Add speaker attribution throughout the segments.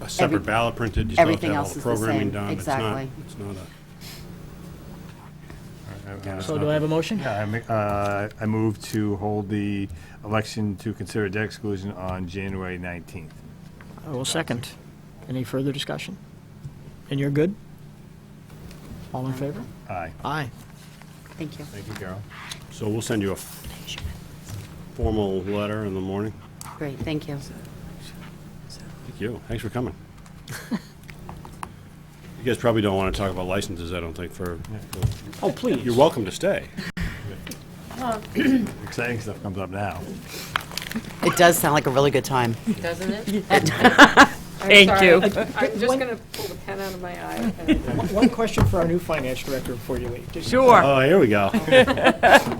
Speaker 1: a separate
Speaker 2: Every-
Speaker 1: ballot printed, you still have to
Speaker 2: everything
Speaker 1: have all
Speaker 2: else
Speaker 1: the
Speaker 2: is the
Speaker 1: programming
Speaker 2: same,
Speaker 1: done. It's not-
Speaker 2: exactly.
Speaker 1: It's not a. I- I-
Speaker 3: So do I have a motion?
Speaker 4: Yeah, I ma- uh, I move to hold the election to consider debt exclusion on January 19th.
Speaker 3: I will second. Any further discussion? And you're good? All in favor?
Speaker 4: Aye.
Speaker 3: Aye.
Speaker 2: Thank you.
Speaker 4: Thank you, Carol.
Speaker 1: So we'll send you a f- formal letter in the morning.
Speaker 2: Great, thank you.
Speaker 1: Thank you. Thanks for coming. You guys probably don't want to talk about licenses, I don't think, for,
Speaker 3: Oh, please.
Speaker 1: you're welcome to stay.
Speaker 4: Exciting stuff comes up now.
Speaker 5: It does sound like a really good time.
Speaker 6: Doesn't it?
Speaker 7: Thank
Speaker 6: sorry.
Speaker 7: you.
Speaker 6: I'm just going to pull the pen out of my eye. and-
Speaker 3: One question for our new finance director before you leave. Just-
Speaker 7: Sure.
Speaker 1: Oh, here we go.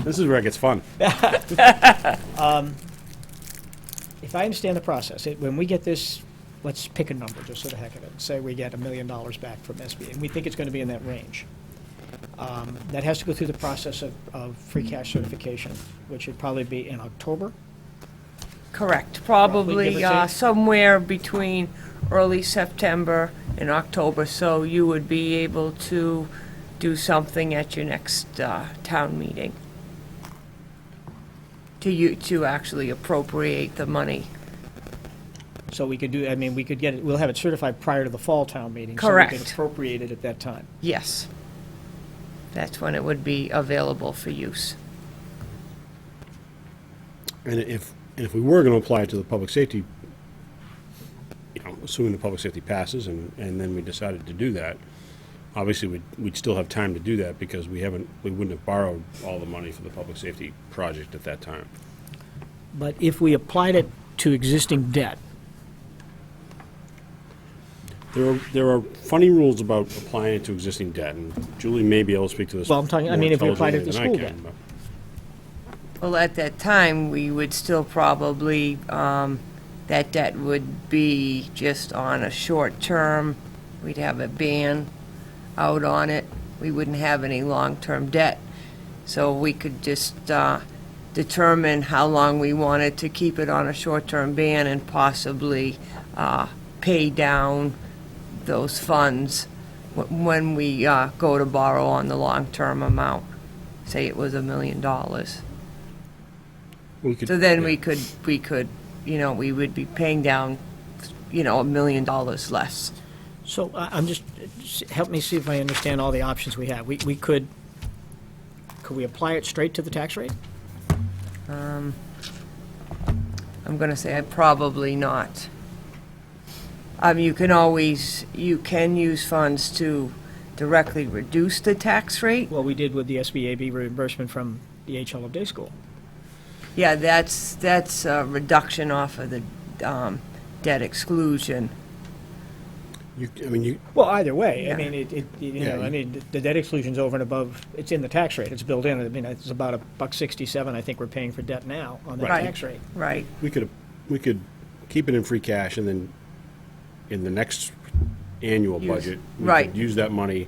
Speaker 1: This is where it gets fun.
Speaker 3: If I understand the process, it- when we get this, let's pick a number, just sort of heck of it. Say we get a million dollars back from SB, and we think it's going to be in that range. Um, That has to go through the process of, of free cash certification, which would probably be in October.
Speaker 7: Correct.
Speaker 3: Roughly, give
Speaker 7: Probably
Speaker 3: or
Speaker 7: uh,
Speaker 3: take.
Speaker 7: somewhere between early September and October, so you would be able to do something at your next uh, town meeting to you, to actually appropriate the money.
Speaker 3: So we could do, I mean, we could get it, we'll have it certified prior to the fall town meeting. So we
Speaker 7: Correct.
Speaker 3: can appropriate it at that time.
Speaker 7: Yes. That's when it would be available for use.
Speaker 1: And if, and if we were going to apply it to the public safety, you know, assuming the public safety passes and, and then we decided to do that, obviously we'd, we'd still have time to do that because we haven't, we wouldn't have borrowed all the money for the public safety project at that time.
Speaker 3: But if we applied it to existing debt,
Speaker 1: There are, there are funny rules about applying it to existing debt, and Julie may be able to speak to this.
Speaker 3: Well, I'm talking- I
Speaker 1: more
Speaker 3: mean, if we applied it to
Speaker 1: intelligently
Speaker 3: school
Speaker 1: than I can,
Speaker 7: Well, at that time, we would still probably, um, that debt would be just on a short term. We'd have a ban out on it. We wouldn't have any long-term debt. So we could just, uh, determine how long we wanted to keep it on a short-term ban and possibly, uh, pay down those funds wh- when we, uh, go to borrow on the long-term amount. Say it was a million dollars.
Speaker 1: but we could-
Speaker 7: So then we could, we could, you know, we would be paying down, you know, a million dollars less.
Speaker 3: so I- I'm just, s- help me see if I understand all the options we have. We, we could, could we apply it straight to the tax rate?
Speaker 7: Um, I'm gonna say I probably not. Um, you can always, you can use funds to directly reduce the tax rate.
Speaker 3: Well, we did with the SBAB reimbursement from the HL Day School.
Speaker 7: Yeah, that's, that's a reduction off of the, um, debt exclusion.
Speaker 1: You, I mean, you,
Speaker 3: Well, either way, I
Speaker 7: Yeah.
Speaker 3: mean, it, it, you
Speaker 1: Yeah,
Speaker 3: know, I
Speaker 1: you-
Speaker 3: mean, the debt exclusion's over and above, it's in the tax rate, it's built in. I mean, it's about a buck sixty-seven, I think we're paying for debt now on the
Speaker 7: Right.
Speaker 3: tax rate.
Speaker 7: Right,
Speaker 1: we could, we could keep it in free cash and then in the next annual
Speaker 7: Use-
Speaker 1: budget. we could
Speaker 7: right.
Speaker 1: Use that money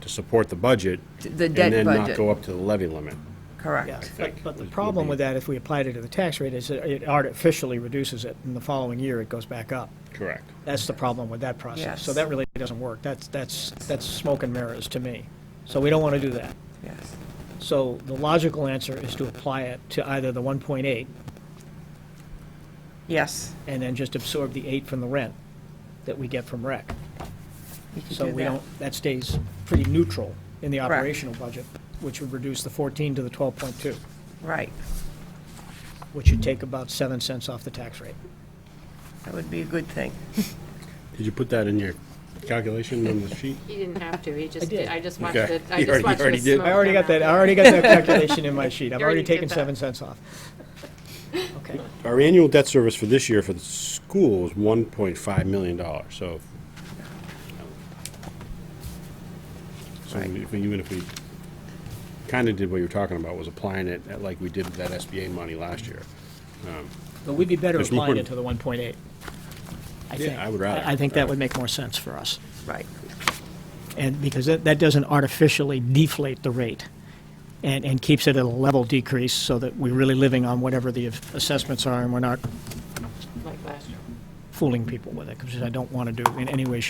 Speaker 1: to support the budget.
Speaker 7: T- the
Speaker 1: And
Speaker 7: debt
Speaker 1: then not
Speaker 7: budget.
Speaker 1: go up to the levy limit.
Speaker 7: correct.
Speaker 3: But, but the
Speaker 1: would- would
Speaker 3: problem
Speaker 1: be-
Speaker 3: with that, if we applied it to the tax rate, is it it artificially reduces it, and the following year it goes back up.
Speaker 1: Correct.
Speaker 3: That's the problem with that process. So
Speaker 7: Yes.
Speaker 3: that really doesn't work. That's, that's, that's smoke and mirrors to me. So we don't want to do that.
Speaker 7: Yes.
Speaker 3: So the logical answer is to apply it to either the 1.8
Speaker 7: Yes.
Speaker 3: and then just absorb the 8 from the rent that we get from rec.
Speaker 7: you could
Speaker 3: So
Speaker 7: do
Speaker 3: we
Speaker 7: that.
Speaker 3: don't, that stays pretty neutral in the
Speaker 7: Correct.
Speaker 3: operational budget, which would reduce the 14 to the 12.2,
Speaker 7: Right.
Speaker 3: which would take about 7 cents off the tax rate.
Speaker 7: That would be a good thing.
Speaker 1: Did you put that in your calculation on the sheet?
Speaker 6: He didn't have to, he just,
Speaker 3: did.
Speaker 6: did- I just watched
Speaker 1: Okay.
Speaker 6: it. I
Speaker 1: You already-
Speaker 6: just
Speaker 1: you
Speaker 6: watched the
Speaker 1: already did.
Speaker 6: smoke
Speaker 3: I already
Speaker 6: come
Speaker 3: got that, I
Speaker 6: out.
Speaker 3: already got that calculation in my sheet. I've
Speaker 6: Oh, You already
Speaker 3: already
Speaker 6: did
Speaker 3: taken
Speaker 6: that.
Speaker 3: 7 cents off. Okay.
Speaker 1: Our annual debt service for this year for the school was one point five million dollars, so. So if we, even if we kinda did what you were talking about, was applying it at like we did that SBA money last year.
Speaker 3: But we'd be better
Speaker 1: There's
Speaker 3: applying
Speaker 1: more-
Speaker 3: it to the 1.8. I think.
Speaker 1: I would rather.
Speaker 3: I think that would make more sense for us.
Speaker 7: Right.
Speaker 3: And because that, that doesn't artificially deflate the rate and, and keeps it at a level decrease so that we're really living on whatever the assessments are and we're not
Speaker 6: Like last year.
Speaker 3: fooling people with it, because I don't want to do in any way,